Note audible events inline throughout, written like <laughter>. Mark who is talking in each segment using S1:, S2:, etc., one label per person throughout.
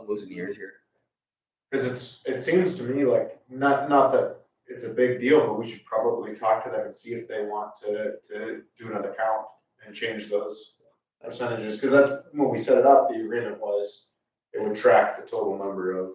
S1: I'm losing years here.
S2: Cause it's, it seems to me like, not, not that it's a big deal, but we should probably talk to them and see if they want to, to do another count and change those percentages, cause that's, when we set it up, the agreement was, it would track the total number of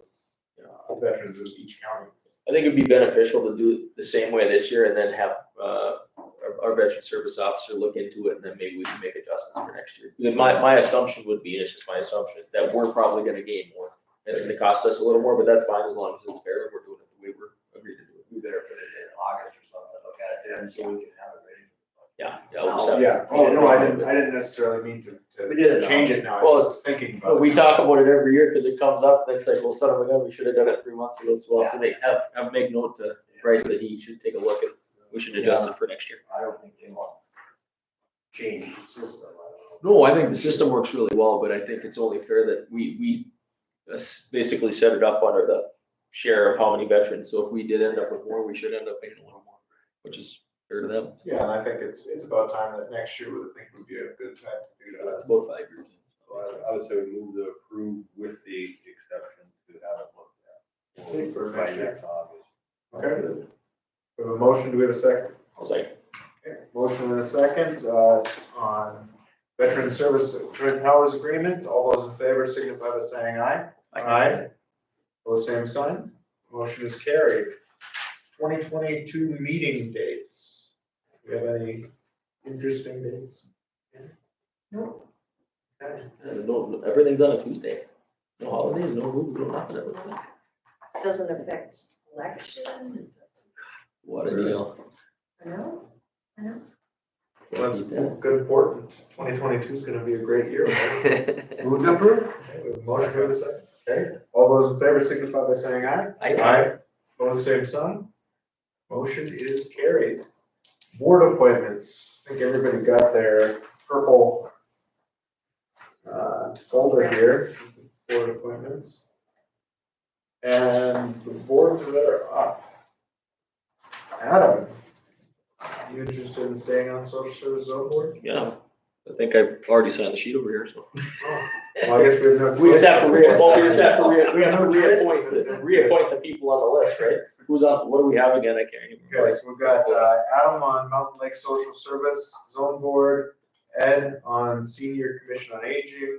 S2: uh, veterans of each county.
S1: I think it'd be beneficial to do it the same way this year and then have, uh, our, our veteran service officer look into it and then maybe we can make adjustments for next year. Then my, my assumption would be, and it's just my assumption, that we're probably gonna gain more. And It's gonna cost us a little more, but that's fine as long as it's fair and we're doing it the way we're agreed to do it.
S3: We better put it in August or something, look at it then, so we can have it ready.
S1: Yeah, yeah. we'll just have-
S2: Yeah, oh, no, I didn't, I didn't necessarily mean to,
S3: We did it
S2: to
S3: now.
S2: change it now, I
S1: Well,
S2: just was thinking about
S1: But
S2: it.
S1: we talk about it every year, cause it comes up, and it's like, well, son of a gun, we should have done it three months ago, so we'll have to make, have, have make note to Bryce that he should take a look at, we should adjust it for next year.
S3: I don't think they want to change the system, I don't know.
S1: No, I think the system works really well, but I think it's only fair that we, we uh, s- basically set it up under the share of how many veterans, so if we did end up with more, we should end up paying a little more, which is fair to them.
S2: Yeah, and I think it's, it's about time that next year would, I think would be a good time to do that.
S1: That's both five years.
S4: So I, I would say we move to approve with the exception to have it looked at.
S2: I think for
S4: By
S2: next year.
S4: next August.
S2: Okay. We have a motion, do we have a second?
S1: I was like,
S2: Okay, Motion and a second, uh, on Veteran Service Veteran Powers Agreement, all those in favor signify by saying aye.
S1: I
S2: Those same sign, motion is carried. Twenty twenty-two meeting dates, do we have any interesting dates? No. Okay.
S1: no, everything's on a Tuesday, no holidays, no moves, no nothing, it looks like.
S5: doesn't affect election, it doesn't,
S1: what a deal.
S5: I know, I know.
S1: Can't beat that.
S2: <laughs> Well, Good important, twenty twenty-two is gonna be a
S1: <laughs>
S2: great year. Move to approve. Okay, we have a Motion to second, okay, all those in favor signify by saying aye.
S1: I,
S2: Aye. Pose same sign. Motion is carried. Board appointments. I think everybody got their purple uh, folder here, board appointments. And the boards that are up. Adam, you interested in staying on social service zone board?
S1: yeah, I think I've already signed the sheet over here, so.
S2: Oh, Well, I guess we have no.
S1: We just have to re, well, we just have to
S2: <laughs>
S1: re, we have to
S5: <laughs>
S1: reappoint, the- reappoint the people on the list, right? Who's on, what do we have again? I can't even
S2: Okay,
S1: remember.
S2: so we've got uh, Adam on Mountain Lake Social Service Zone Board, Ed on Senior Commission on Aging,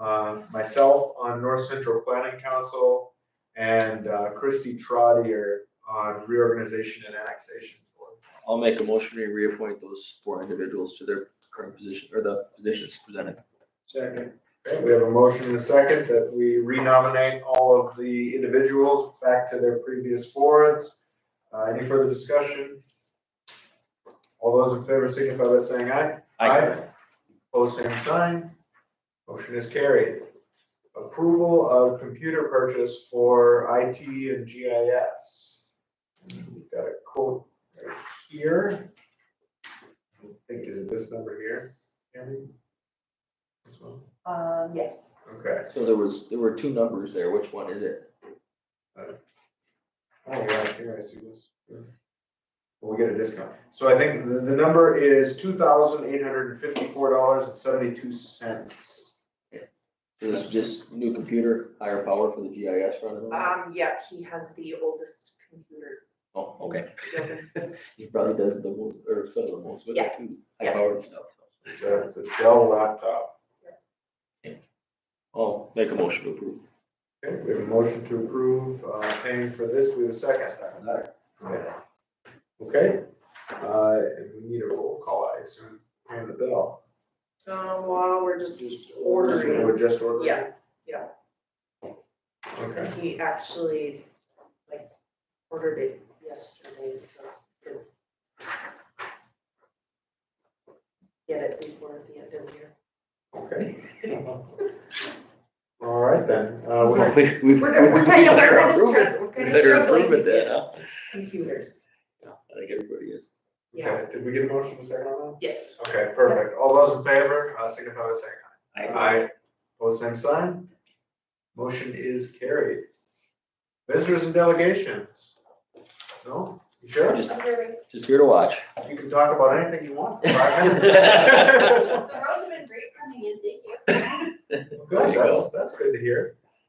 S2: uh, myself on North Central Planning Council, and uh, Christy Trotter on Reorganization and Annexation Board.
S1: I'll make a motion to reappoint those four individuals to their current position, or the positions presented.
S2: Second. Okay, we have a motion and a second that we renominate all of the individuals back to their previous boards. Uh, Any further discussion? All those in favor signify by saying aye. Aye. Pose same sign. Motion is carried. Approval of computer purchase for IT and GIS. We've got a quote right here. I think, is it this number here? Andy? This one?
S5: Um, yes.
S2: Okay.
S1: So there was, there were two numbers there. Which one is it?
S2: Oh, yeah, here I see this. Yeah. Well, we get a discount. So I think the, the number is two thousand eight hundred and fifty-four dollars and seventy-two cents.
S1: It was just new computer, higher power for the GIS running? on it?
S5: Um, yeah, he has the oldest computer.
S1: Oh, okay.
S5: building.
S1: He probably does the most, or some of the most, but
S5: Yeah.
S1: too, high
S5: Yeah.
S1: powered stuff.
S2: It's a it's a Dell laptop.
S1: I'll make a motion to approve.
S2: Okay, we have a motion to approve, uh, paying for this, we have a second. Okay. Okay, uh, and we need a roll call, I assume, on the bill.
S5: Uh, well, we're just ordering,
S2: We're just ordering?
S5: yeah, yeah.
S2: Okay,
S5: He actually, like, ordered it yesterday, so. he'll Get it before the end of the year.
S2: okay. All right then, uh,
S5: Sorry.
S2: we-
S1: <laughs> We- we-
S5: We're,
S1: we
S5: <laughs> we're kind of,
S1: better
S5: we're
S1: approve it.
S5: just, we're
S1: We
S5: kind of
S1: better
S5: struggling
S1: approve it
S5: with
S1: then,
S5: it.
S1: huh?
S5: computers,
S1: I think everybody is.
S5: yeah,
S2: okay, did we get a motion to second on
S5: yes.
S2: that? Okay, perfect, all those in favor, uh, signify by saying
S1: I-
S2: Aye. Pose same sign. Motion is carried. Visitors and delegations. No? You sure?
S1: Just, just here to watch.
S2: You can talk about anything you want. for five minutes.
S1: There
S6: The roads have been great for me, thank you.
S2: Good, that's, that's good to hear.